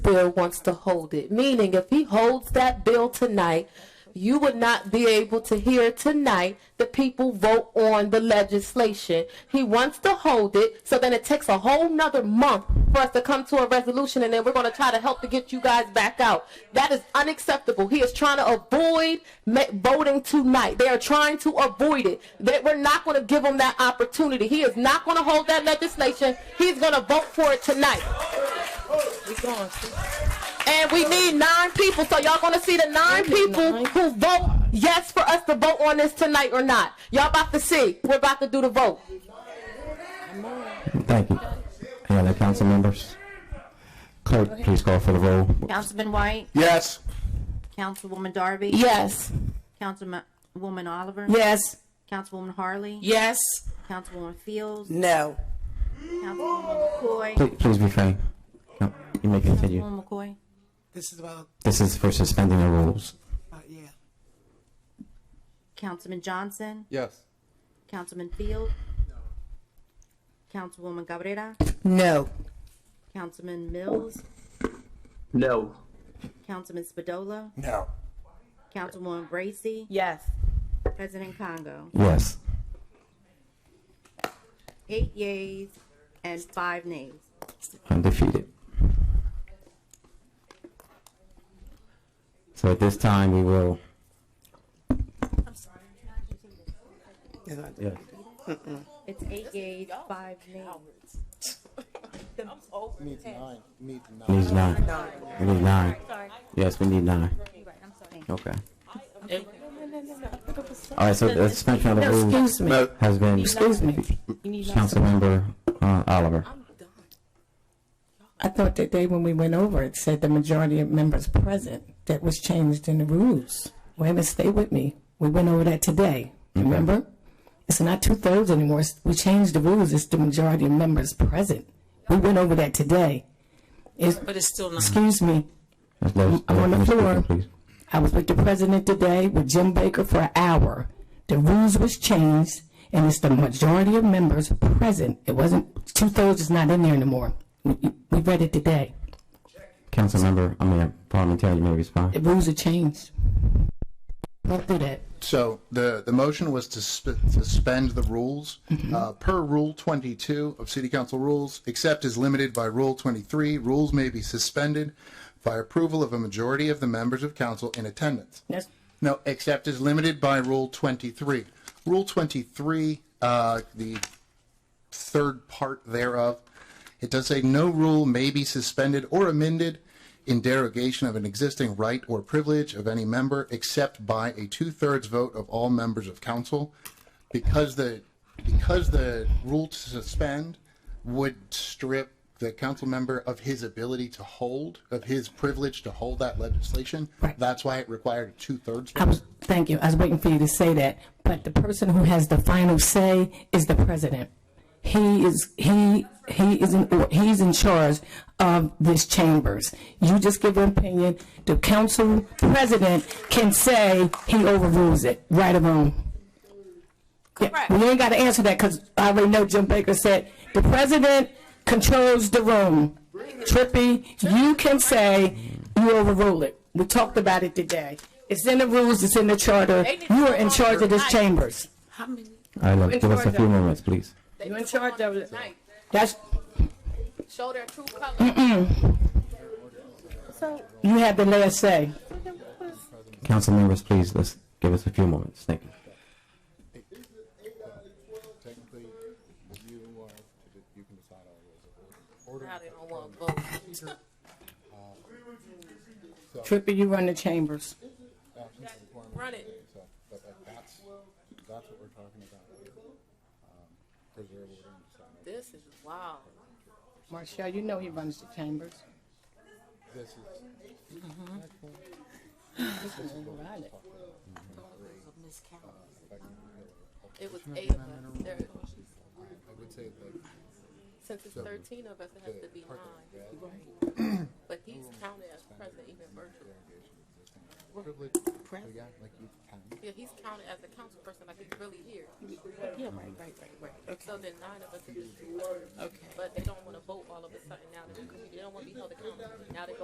Bill wants to hold it. Meaning, if he holds that bill tonight, you would not be able to hear tonight the people vote on the legislation. He wants to hold it, so then it takes a whole nother month for us to come to a resolution, and then we're going to try to help to get you guys back out. That is unacceptable. He is trying to avoid ma- voting tonight. They are trying to avoid it. That we're not going to give him that opportunity. He is not going to hold that legislation. He's going to vote for it tonight. And we need nine people. So y'all gonna see the nine people who vote yes for us to vote on this tonight or not. Y'all about to see. We're about to do the vote. Thank you. Any other council members? Clerk, please call for the roll. Councilman White, Yes. Councilwoman Darby, Yes. Councilwoman Oliver, Yes. Councilwoman Harley, Yes. Councilwoman Fields, No. Councilwoman McCoy, Please, please refrain. No, you may continue. Councilwoman McCoy. This is about, This is for suspending the rules. about yeah. Councilman Johnson, Yes. Councilman Field, Councilwoman Cabrera, No. Councilman Mills, No. Councilman Spadola, No. Councilwoman Bracy, Yes. President Congo. Yes. Eight yeas and five nays. Undefeated. So at this time, we will, It's not- yes. It's eight yeas, five nays. Need nine. Need nine. Needs nine. We need nine. Yes, we need nine. Okay. All right, so the suspension of the rules Excuse me. No. has been. Excuse me. Councilmember uh, Oliver. I thought that day when we went over, it said the majority of members present. That was changed in the rules. Wait a minute, stay with me. We went over that today. Remember? It's not two thirds anymore. It's- We changed the rules. It's the majority of members present. We went over that today. It's, But it's still not. excuse me. Ms. Lewis, I'm on the Ms. Speaker, floor. please. I was with the president today with Jim Baker for an hour. The rules was changed, and it's the majority of members present. It wasn't two thirds is not in there anymore. We, we read it today. Councilmember, I mean, parliamentarian, you may The respond. rules are changed. Don't do that. So the, the motion was to sp- suspend the rules uh, per Rule 22 of City Council rules, except as limited by Rule 23. Rules may be suspended by approval of a majority of the members of council in attendance. That's, No, except as limited by Rule 23. Rule 23, uh, the third part thereof, it does say no rule may be suspended or amended in derogation of an existing right or privilege of any member except by a two-thirds vote of all members of council. Because the, because the rule to suspend would strip the council member of his ability to hold, of his privilege to hold that legislation. Right. That's why it required a two-thirds. I was, thank you. I was waiting for you to say that. But the person who has the final say is the president. He is he he is in or he's in charge of this chambers. You just give an opinion. The council president can say he overrules it, right or wrong. Yeah, we ain't got to answer that because I already know Jim Baker said the president controls the room. Trippy, you can say you overrule it. We talked about it today. It's in the rules. It's in the charter. You are in charge of this chambers. How many? I love, give us a few moments, please. You're in charge of it. That's Show their true colors. you have the last say. Council members, please, let's give us a few moments. Thank you. Technically, you are, you can decide all Uh, Trippy, you run the chambers. Run it. So, but that- that's, that's what we're talking about here. Um, Preserve order and decide. This is wild. Marshall, you know he runs the chambers. This is, It was eight of us. There, I would say that since it's thirteen of us, it has to be nine. But he's counted as present even virtually. privilege, yeah, like you can. Yeah, he's counted as a council person, like he's really here. Yeah, right, right, right, right. So then nine of us is just two. Okay. But they don't wanna vote all of a sudden now, that we- they don't wanna be held accountable, now they